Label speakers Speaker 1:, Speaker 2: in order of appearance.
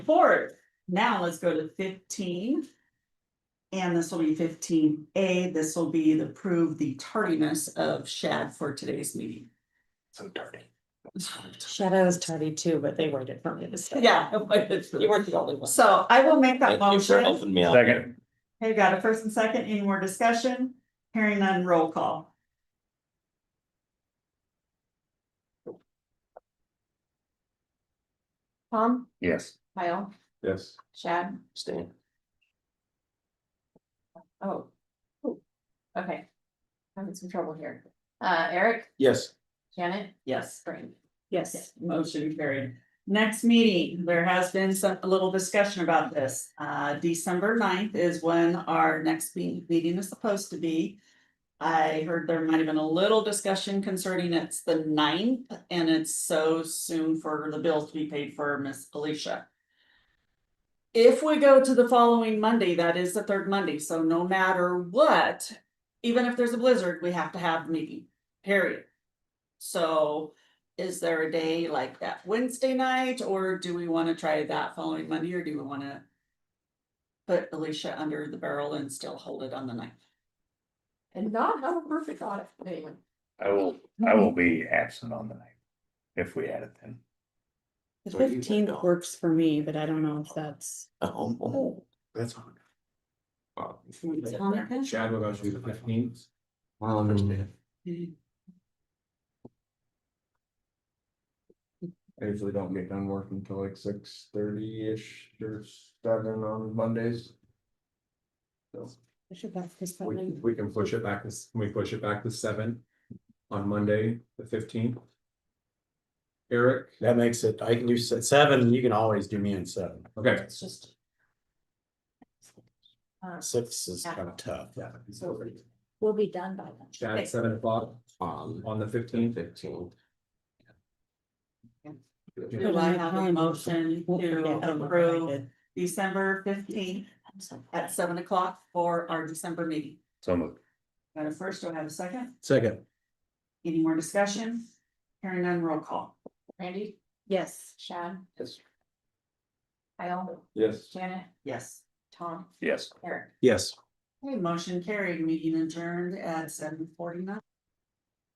Speaker 1: report. Now let's go to fifteen. And this will be fifteen A. This will be the prove the tardiness of Shad for today's meeting.
Speaker 2: So dirty.
Speaker 3: Shadow is tardy too, but they waited for me to say.
Speaker 1: Yeah.
Speaker 3: You weren't the only one.
Speaker 1: So I will make that
Speaker 4: Thank you for
Speaker 1: motion.
Speaker 4: helping me out.
Speaker 2: Second,
Speaker 1: Hey, got a first and second. Any more discussion? Hearing none, roll call.
Speaker 3: Tom,
Speaker 2: yes.
Speaker 3: Kyle,
Speaker 2: Yes.
Speaker 3: Shad,
Speaker 4: Stan.
Speaker 3: oh. ooh, Okay. Having some trouble here. Uh, Eric,
Speaker 2: Yes.
Speaker 3: Janet,
Speaker 1: Yes.
Speaker 3: Spring.
Speaker 1: Yes, motion carried. Next meeting, there has been some, a little discussion about this. Uh, December 9th is when our next me- meeting is supposed to be. I heard there might have been a little discussion concerning it's the 9th, and it's so soon for the bills to be paid for Miss Alicia. If we go to the following Monday, that is the third Monday, so no matter what, even if there's a blizzard, we have to have the meeting, period. So is there a day like that Wednesday night, or do we wanna try that following Monday, or do we wanna? Put Alicia under the barrel and still hold it on the ninth?
Speaker 3: And not have a perfect audit. Anyway,
Speaker 2: I will, I will be absent on the night. If we had it then.
Speaker 5: The
Speaker 4: Where you can
Speaker 5: fifteenth
Speaker 4: go.
Speaker 5: works for me, but I don't know if that's,
Speaker 4: Oh,
Speaker 2: That's on.
Speaker 4: wow.
Speaker 6: Chad will go through the fifteenth.
Speaker 4: Um,
Speaker 6: I usually don't get done working until like six thirty-ish or seven on Mondays. So
Speaker 5: I should back this up.
Speaker 6: we, we can push it back this, we push it back to seven on Monday, the fifteenth. Eric,
Speaker 7: That makes it, I can do se- seven, you can always do me in seven.
Speaker 6: okay.
Speaker 3: it's just. uh.
Speaker 7: Six is kind of tough.
Speaker 3: We'll be done by then.
Speaker 6: Chad, seven o'clock on the fifteenth.
Speaker 4: oh, um, fifteen.
Speaker 1: Do I have a motion to approve December fifteenth
Speaker 3: I'm so-
Speaker 1: at seven o'clock for our December meeting?
Speaker 2: So moved.
Speaker 1: Got a first, do I have a second?
Speaker 7: Second,
Speaker 1: Any more discussion? Hearing none, roll call.
Speaker 3: Randy,
Speaker 5: Yes,
Speaker 3: Shad.
Speaker 2: Yes.
Speaker 3: Kyle,
Speaker 6: Yes.
Speaker 3: Janet,
Speaker 1: Yes.
Speaker 3: Tom,
Speaker 2: Yes.
Speaker 3: Eric.
Speaker 7: yes.
Speaker 1: Okay, motion carried, meeting adjourned at seven forty-nine.